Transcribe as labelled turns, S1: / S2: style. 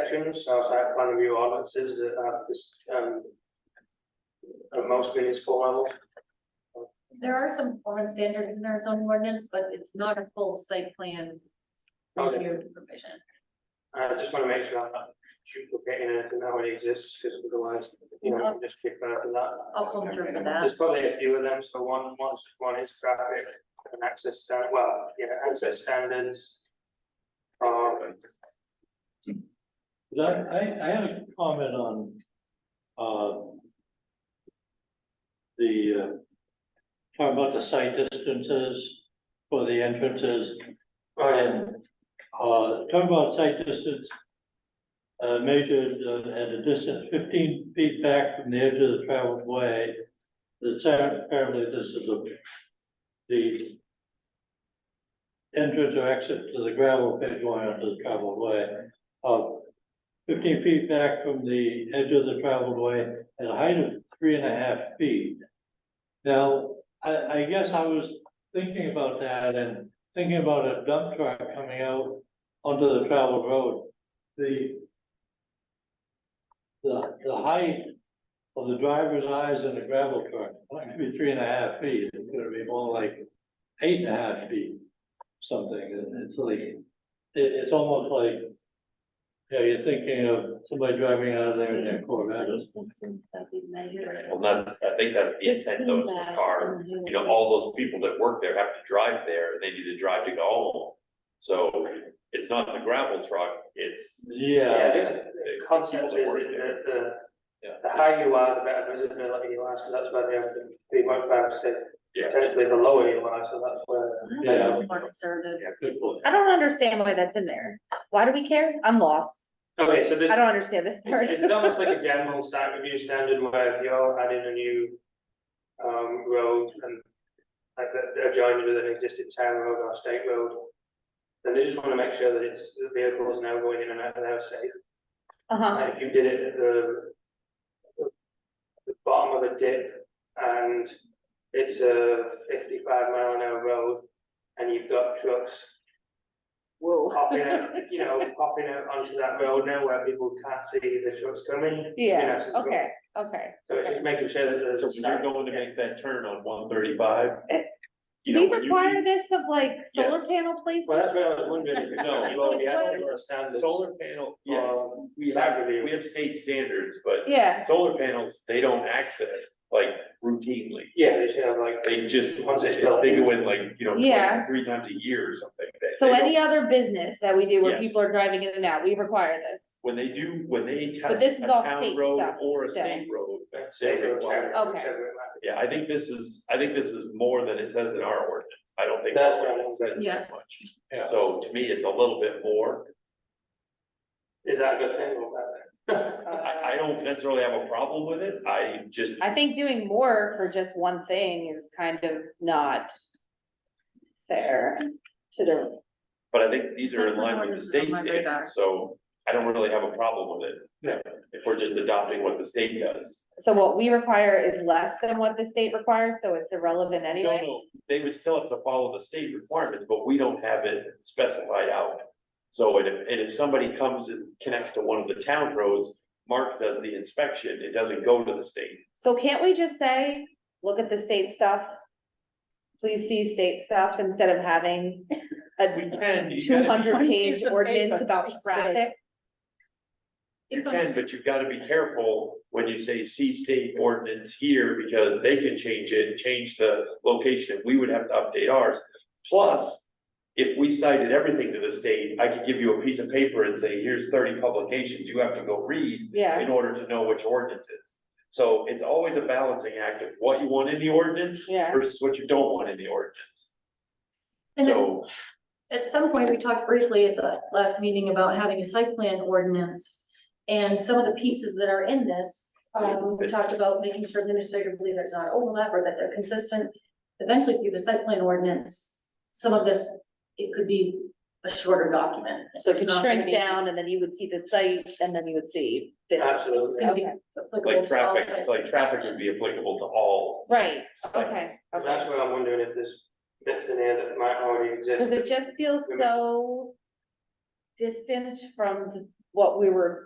S1: sections, our site plan review ordinances that have this, um. At most municipal level,
S2: There are some foreign standards in our zoning ordinance, but it's not a full site plan
S1: Okay.
S2: review provision.
S1: I just wanna make sure I'm not duplicating anything that already exists, because otherwise, you know, we'll just kick back to that.
S2: I'll conjure for that.
S1: There's probably a few of them, so one, one's, one is traffic and access stand, well, yeah, access standards. Or,
S3: I, I, I had a comment on, uh. The, uh, talking about the site distances for the entrances
S1: or,
S3: and, uh, talking about site distance. Uh, measured uh, at a distance fifteen feet back from the edge of the traveled way. The sound, apparently this is a, the. Entrance or exit to the gravel pit going onto the traveled way of fifteen feet back from the edge of the traveled way at a height of three and a half feet. Now, I, I guess I was thinking about that and thinking about a dump truck coming out onto the traveled road. The the, the height of the driver's eyes in a gravel truck, not gonna be three and a half feet, it's gonna be more like eight and a half feet, something, and it's like, it, it's almost like, yeah, you're thinking of somebody driving out of there in their Corvette.
S4: Well, that's, I think that's the intent of the car, you know, all those people that work there have to drive there, and they need to drive to go home. So it's not the gravel truck, it's.
S1: yeah,
S3: Yeah,
S1: the- the concept is that the,
S4: Yeah.
S1: the higher you are, the better visibility you are, so that's why they have the three point five percent.
S4: Yeah.
S1: Potentially the lower you are, so that's where.
S3: yeah,
S2: More conservative.
S3: good point.
S5: I don't understand why that's in there. Why do we care? I'm lost.
S1: Okay, so this.
S5: I don't understand this part.
S1: It's, it's almost like a general site review standard where if you're adding a new um, road and like that that adjoins with an existing town road or state road, then they just want to make sure that it's, the vehicles now going in and out of there are safe.
S5: Uh-huh,
S1: Like if you did it at the the bottom of a dip and it's a fifty-five mile an hour road and you've got trucks
S5: whoa.
S1: popping out, you know, popping out onto that road now where people can't see the trucks coming. you know,
S5: Yeah,
S1: so it's all-
S5: okay, okay.
S1: so it's just making sure that there's.
S4: So when you're going to make that turn on one thirty-five.
S5: Eh, Do we require this of like solar
S4: Yes.
S5: panel places?
S1: Well, that's what I was wondering, if it's
S4: No.
S1: you already have your standards.
S4: Solar panel, yes,
S1: or
S4: we
S1: site
S4: have, we
S1: review.
S4: have state standards, but
S5: Yeah,
S4: solar panels, they don't access like routinely.
S1: Yeah, they should have like,
S4: They just,
S1: Once it's
S4: they
S1: built.
S4: go in like, you know,
S5: Yeah.
S4: twice, three times a year or something. They-
S5: so
S4: they don't-
S5: any other business that we do where
S4: Yes.
S5: people are driving in and out, we require this.
S4: When they do, when they touch
S5: But this
S4: a
S5: is all
S4: town
S5: state
S4: road
S5: stuff
S4: or a
S5: still.
S4: state road.
S1: say,
S4: they're
S1: or
S4: required.
S1: whatever,
S5: Okay.
S1: whichever it might
S4: Yeah, I think this is, I think this is more than it says in our ordinance. I don't think.
S1: That's
S4: our
S1: what I
S4: ordinance says that
S2: Yes.
S4: much.
S3: Yeah.
S4: So to me, it's a little bit more.
S1: be. Is that a good thing or bad
S5: Uh,
S4: I, I don't necessarily have a problem with it. I just.
S5: I think doing more for just one thing is kind of not fair to the,
S4: But I think these are in
S2: Second
S4: line with the
S2: ordinance is on
S4: state
S2: my radar.
S4: standards, so I don't really have a problem with it.
S3: Yeah.
S4: If we're just adopting what the state does.
S5: so what we require is less than what the state requires, so it's irrelevant
S4: No,
S5: anyway.
S4: no, they would still have to follow the state requirements, but we don't have it specified out. So and if, and if somebody comes and connects to one of the town roads, Mark does the inspection, it doesn't go to the state.
S5: So can't we just say, look at the state stuff? Please see state stuff instead of having
S4: We
S5: a
S4: can, you
S5: two
S4: gotta,
S5: hundred page
S6: Piece of
S5: ordinance
S6: paper,
S5: about
S6: state
S5: traffic.
S4: you can, but you've gotta be careful when you say see state ordinance here, because they can change it, change the location, we would have to update ours. Plus, if we cited everything to the state, I could give you a piece of paper and say, here's thirty publications you have to go read.
S5: Yeah,
S4: in order to know which ordinance is. So it's always a balancing act of what you want in the ordinance
S5: yeah.
S4: versus what you don't want in the ordinance.
S2: And then
S4: So,
S2: at some point, we talked briefly at the last meeting about having a site plan ordinance. And some of the pieces that are in this, um, we talked about making sure administratively there's not overlap or that they're consistent. Eventually through the site plan ordinance, some of this, it could be a shorter document.
S5: So it could
S2: It's not gonna
S5: shrink
S2: be
S5: down and then you would see the site and then you would see
S1: be?
S5: this.
S1: Absolutely.
S2: It'd be applicable
S4: like
S5: Okay.
S2: to all
S4: traffic,
S2: types.
S4: like traffic would be applicable to all.
S5: Right,
S4: sites.
S5: okay,
S1: So
S5: okay.
S1: That's where I'm wondering if there's bits in here that might already
S5: Cause it
S1: exist.
S5: just feels so distant from what we were